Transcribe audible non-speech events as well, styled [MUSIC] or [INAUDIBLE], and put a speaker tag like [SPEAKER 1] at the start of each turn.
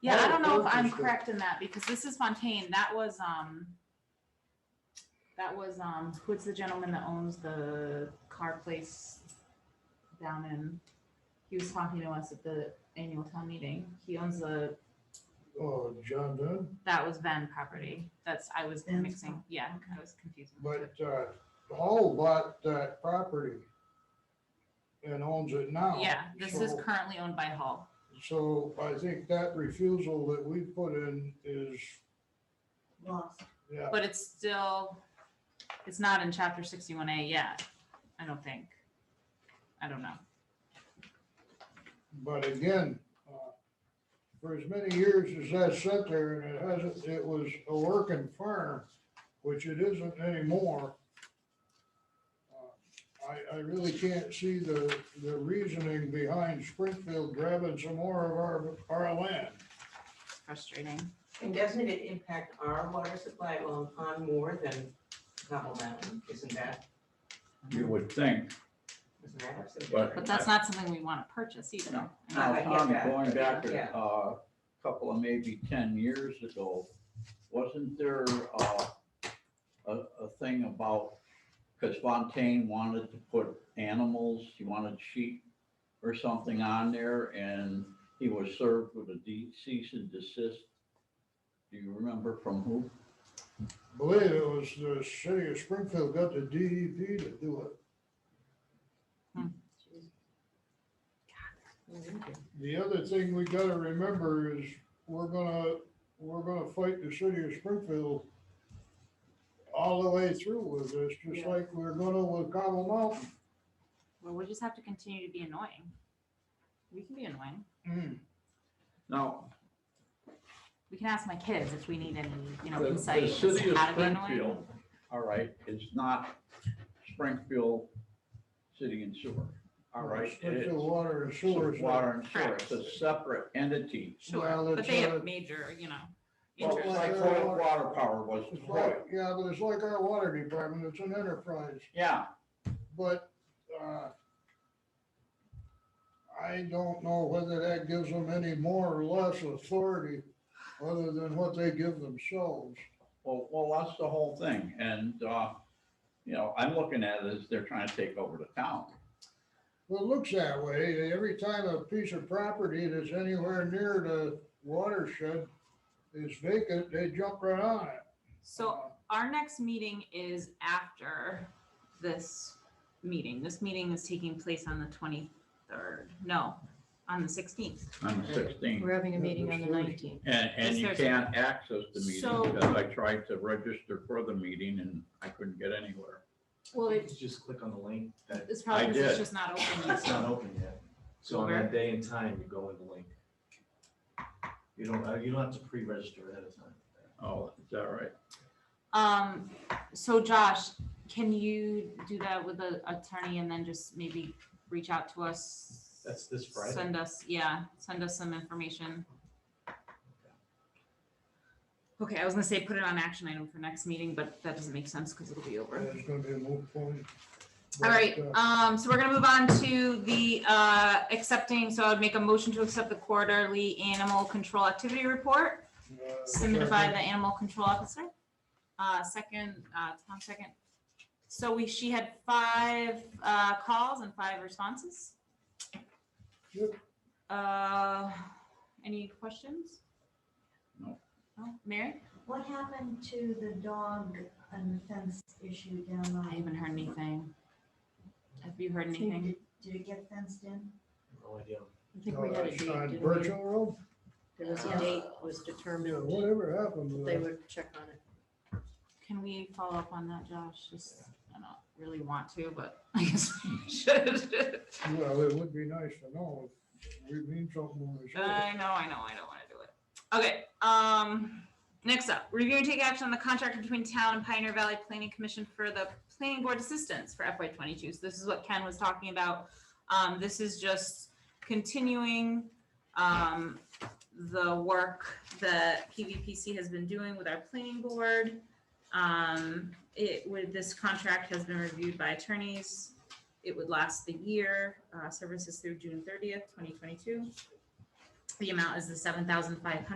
[SPEAKER 1] Yeah, I
[SPEAKER 2] Oh,
[SPEAKER 1] don't know if I'm
[SPEAKER 2] interesting.
[SPEAKER 1] correct in that because this is Fontaine. That was, um, that was, um, who's the gentleman that owns the car place down in, he was talking to us at the annual town meeting. He owns the,
[SPEAKER 2] Oh, John Dunn,
[SPEAKER 1] that was Van property. That's, I was
[SPEAKER 3] Van's
[SPEAKER 1] mixing.
[SPEAKER 3] property,
[SPEAKER 1] Yeah,
[SPEAKER 3] okay.
[SPEAKER 1] I was confusing. the two.
[SPEAKER 2] but uh, Hall bought that property and owns it now.
[SPEAKER 1] Yeah, this is
[SPEAKER 2] So-
[SPEAKER 1] currently owned by Hall.
[SPEAKER 2] So I think that refusal that we put in is,
[SPEAKER 3] lost.
[SPEAKER 2] yeah,
[SPEAKER 1] But it's still, it's not in chapter sixty-one A yet, I don't think. I don't know.
[SPEAKER 2] but again, uh, for as many years as that sat there and it hasn't, it was a working farm, which it isn't anymore. uh, I, I really can't see the, the reasoning behind Springfield grabbing some more of our, our land.
[SPEAKER 1] It's frustrating.
[SPEAKER 4] And doesn't it impact our water supply on, on more than Gobble Mountain? Isn't that,
[SPEAKER 5] You would think,
[SPEAKER 4] isn't that what's the
[SPEAKER 5] But-
[SPEAKER 1] But
[SPEAKER 4] difference?
[SPEAKER 1] that's not something we want to purchase either.
[SPEAKER 5] No.
[SPEAKER 1] I
[SPEAKER 4] No.
[SPEAKER 1] mean,
[SPEAKER 5] now,
[SPEAKER 4] I get
[SPEAKER 5] Tommy,
[SPEAKER 4] that,
[SPEAKER 5] going back
[SPEAKER 4] yeah.
[SPEAKER 5] a uh, couple of maybe ten years ago, wasn't there uh, a, a thing about, because Fontaine wanted to put animals, he wanted sheep or something on there, and he was served with a de- cease and desist. Do you remember from who?
[SPEAKER 2] Believe it was the city of Springfield got the DEP to do it. The other thing we gotta remember is we're gonna, we're gonna fight the city of Springfield all the way through with this, just
[SPEAKER 3] Yeah.
[SPEAKER 2] like we're gonna with Cobble Mountain.
[SPEAKER 1] Well, we just have to continue to be annoying. We can be annoying.
[SPEAKER 2] Mm.
[SPEAKER 5] Now,
[SPEAKER 1] We can ask my kids if we need any, you know,
[SPEAKER 5] The-
[SPEAKER 1] insight
[SPEAKER 5] The
[SPEAKER 1] as to
[SPEAKER 5] city of
[SPEAKER 1] how to be annoying.
[SPEAKER 5] Springfield, all right, is not Springfield City and Sewer, all right? It is
[SPEAKER 2] Springfield Water and Sewer.
[SPEAKER 5] Sewer, Water and Sewer,
[SPEAKER 1] Correct.
[SPEAKER 5] it's a separate entity.
[SPEAKER 2] Well,
[SPEAKER 1] Sure, but
[SPEAKER 2] it's,
[SPEAKER 1] they
[SPEAKER 2] uh,
[SPEAKER 1] have major, you know,
[SPEAKER 5] Well,
[SPEAKER 2] Interesting.
[SPEAKER 1] interest.
[SPEAKER 5] like Hoyok Water Power was
[SPEAKER 2] It's
[SPEAKER 5] Hoyok,
[SPEAKER 2] like, yeah, but it's like our water department, it's an enterprise.
[SPEAKER 5] yeah,
[SPEAKER 2] But, uh, I don't know whether that gives them any more or less authority other than what they give themselves.
[SPEAKER 5] well, well, that's the whole thing, and, uh, you know, I'm looking at it as they're trying to take over the town.
[SPEAKER 2] Well, it looks that way. Every time a piece of property that's anywhere near the watershed is vacant, they jump right on it.
[SPEAKER 1] So our next meeting is after this meeting. This meeting is taking place on the twenty-third, no, on the sixteenth.
[SPEAKER 5] I'm sixteen,
[SPEAKER 3] We're having a
[SPEAKER 2] Yeah,
[SPEAKER 3] meeting on the
[SPEAKER 2] there's thirty.
[SPEAKER 3] nineteenth.
[SPEAKER 5] and, and
[SPEAKER 1] Yes,
[SPEAKER 5] you
[SPEAKER 1] there's-
[SPEAKER 5] can't access the meeting,
[SPEAKER 1] So-
[SPEAKER 5] because I tried to register for the meeting and I couldn't get anywhere.
[SPEAKER 1] Well,
[SPEAKER 6] You could just click on the link that
[SPEAKER 1] it's
[SPEAKER 5] I
[SPEAKER 1] probably, 'cause it's
[SPEAKER 5] did.
[SPEAKER 1] just not open yet.
[SPEAKER 6] it's not open yet. So on
[SPEAKER 1] Where?
[SPEAKER 6] that day and time, you go in the link. You don't, uh, you don't have to pre-register ahead of time.
[SPEAKER 5] Oh, is that right?
[SPEAKER 1] Um, so Josh, can you do that with the attorney and then just maybe reach out to us?
[SPEAKER 6] That's this Friday.
[SPEAKER 1] Send us, yeah, send us some information. Okay, I was gonna say put it on action item for next meeting, but that doesn't make sense because it'll be over.
[SPEAKER 2] Uh, It's gonna be a moot point.
[SPEAKER 1] All right,
[SPEAKER 2] But, uh,
[SPEAKER 1] um, so we're gonna move on to the, uh, accepting, so I would make a motion to accept the quarterly animal control activity report
[SPEAKER 2] uh,
[SPEAKER 1] submitted by
[SPEAKER 2] second.
[SPEAKER 1] the animal control officer. Uh, second, uh, Tom second. So we, she had five, uh, calls and five responses.
[SPEAKER 2] Yep.
[SPEAKER 1] Uh, any questions?
[SPEAKER 5] No.
[SPEAKER 1] No, Mary?
[SPEAKER 3] What happened to the dog and the fence issue down
[SPEAKER 1] I
[SPEAKER 3] on?
[SPEAKER 1] haven't heard anything. Have you heard anything?
[SPEAKER 3] Did- Did it get fenced in?
[SPEAKER 6] No idea.
[SPEAKER 3] I think we
[SPEAKER 2] Uh,
[SPEAKER 3] had a date,
[SPEAKER 2] on
[SPEAKER 3] didn't we?
[SPEAKER 2] Birchall Road,
[SPEAKER 3] There was a
[SPEAKER 6] Yeah.
[SPEAKER 3] date was
[SPEAKER 2] yeah,
[SPEAKER 3] determined,
[SPEAKER 2] whatever happened to
[SPEAKER 3] they
[SPEAKER 2] that?
[SPEAKER 3] would check on it.
[SPEAKER 1] Can we follow up on that, Josh? Just, I don't really want to, but [LAUGHS] I guess we should.
[SPEAKER 2] Well, it would be nice to know. if We mean something when we say it.
[SPEAKER 1] I know, I know, I don't wanna do it. Okay, um, next up, review and take action on the contract between town and Pioneer Valley Planning Commission for the planning board assistance for FY twenty-two. So this is what Ken was talking about. Um, this is just continuing, um, the work that PVPC has been doing with our planning board. Um, it, with, this contract has been reviewed by attorneys. It would last the year, uh, services through June thirtieth, twenty twenty-two. The amount is the seven thousand five hundred.